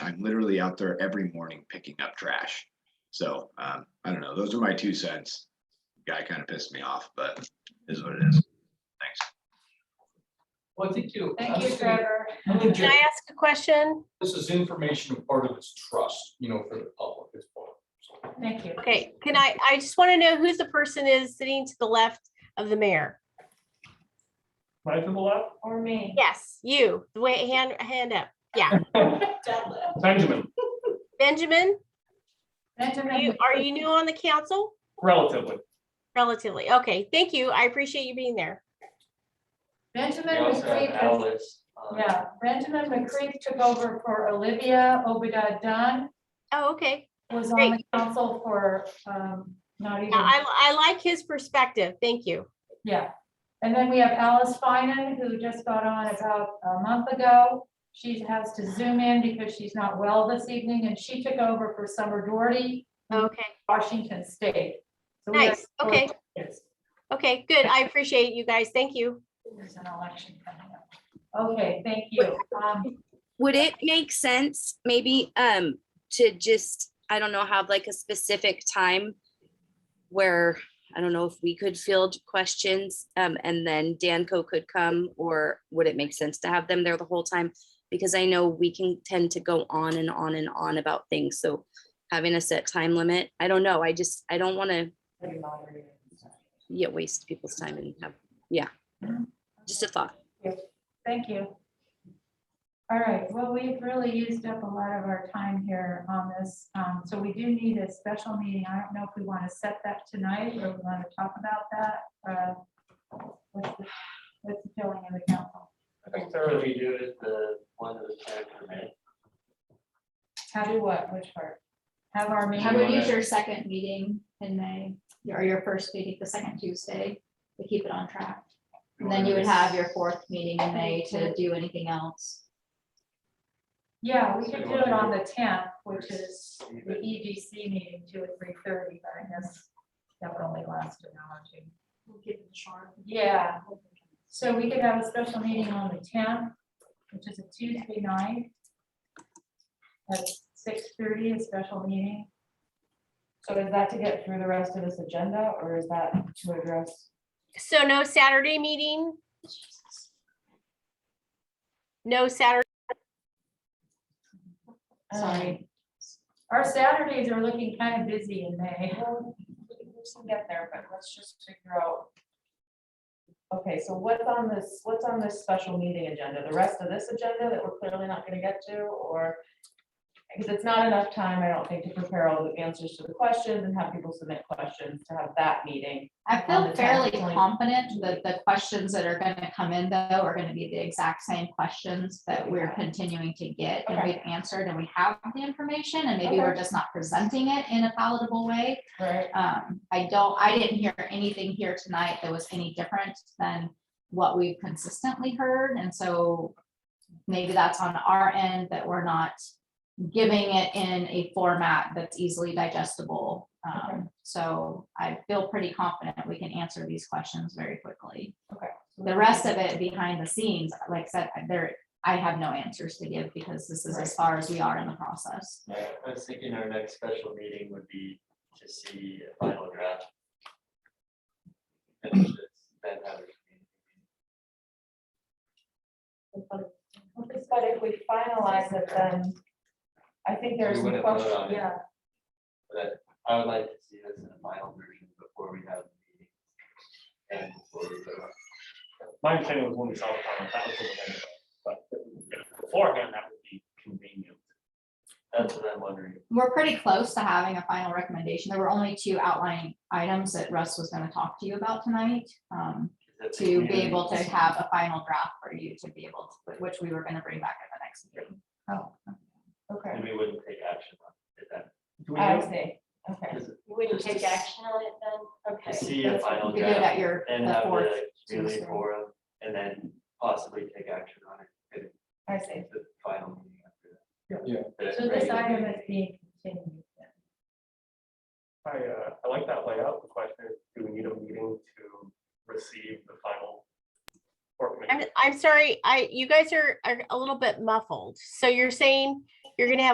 literally out there every morning picking up trash. So, um, I don't know, those are my two cents. Guy kind of pissed me off, but is what it is. Thanks. Well, I think you. I Thank you, think Trevor. I think Can I ask a question? This is information and part of its trust, you know, for the public as well. So, Thank you. Okay, can I, I just want to know who the person is sitting to the left of the mayor? Right to the left, Or me. Yes, you, the way, hand, hand up. Yeah, Benjamin, Benjamin, you, Benjamin, are you new on the council? relatively. Relatively. Okay, thank you. I appreciate you being there. Benjamin We also have McCreek, took- Alice. um, yeah, Benjamin McCreek took over for Olivia Obada Dunn, Oh, okay. was on the council for, um, not even, Yeah, I, I like his perspective. Thank you. yeah. And then we have Alice Finan, who just got on about a month ago. She has to zoom in because she's not well this evening, and she took over for Summer Doherty, Okay, Washington State. So we have nice. Okay, Yes. okay, good. I appreciate you guys. Thank you. There's an election coming up. Okay, thank you. Um, Would it make sense maybe um to just, I don't know, have like a specific time where, I don't know if we could field questions um and then Danco could come or would it make sense to have them there the whole time? Because I know we can tend to go on and on and on about things. So having a set time limit, I don't know. I just, I don't want to yeah, waste people's time and have, yeah. Just a thought. Thank you. All right, well, we've really used up a lot of our time here on this, um, so we do need a special meeting. I don't know if we want to set that tonight or we want to talk about that. uh, What's the what's the feeling of the council? I think thoroughly do is the one that was planned for May. How do what, which part? Have our I would meeting, use your second meeting in May, or your first meeting, the second Tuesday, to keep it on track. And then you would have your fourth meeting in May to do anything else. yeah, we could do it on the tenth, which is the EDC meeting, two or three thirty, but I guess that would only last an hour or two. Yeah, so we could have a special meeting on the tenth, which is a Tuesday night. At six thirty, a special meeting. So is that to get through the rest of this agenda or is that to address? So no Saturday meeting? No Saturday, Sorry. Um, Our Saturdays are looking kind of busy in May. Well, We can get there, but let's just figure out. Okay, so what's on this, what's on this special meeting agenda? The rest of this agenda that we're clearly not gonna get to or? Because it's not enough time, I don't think, to prepare all the answers to the questions and have people submit questions to have that meeting. I On feel the fairly 10th. confident that the questions that are gonna come in though are gonna be the exact same questions that we're continuing to get. And Okay. we've answered and we have the information and maybe we're Okay. just not presenting it in a palatable way. Right. Um, I don't, I didn't hear anything here tonight that was any different than what we've consistently heard, and so maybe that's on our end that we're not giving it in a format that's easily digestible. Um, so I feel pretty confident we can answer these questions very quickly. Okay. The rest of it behind the scenes, like I said, there, I have no answers to give because this is as far as we are in the process. I I was thinking our next special meeting would be to see a final draft. And just then have a meeting. But if we finalize it, then I think there's some We wouldn't vote question, on it. yeah. But I would like to see this in a final version before we have the meeting. And before we vote. My understanding was when we saw the comment, that was the thing, but beforehand, that would be convenient. That's what I'm wondering. We're pretty close to having a final recommendation. There were only two outlining items that Russ was gonna talk to you about tonight. um, Is that the to be community- able to have a final draft for you to be able, to which we were gonna bring back at the next meeting. Oh, okay. And we wouldn't take action on it then. Do we I know- see, okay. Just you wouldn't take action on it then? To see a final You could do it draft at your, and the have fourth. the community Tuesday. forum and then possibly take action on it. I see. at The final meeting after that. Yeah. The So this regular item meeting. is being continued. I, uh, I like that layout. The question is, do we need a meeting to receive the final? work I'm, minutes? I'm sorry, I, you guys are, are a little bit muffled. So you're saying you're gonna have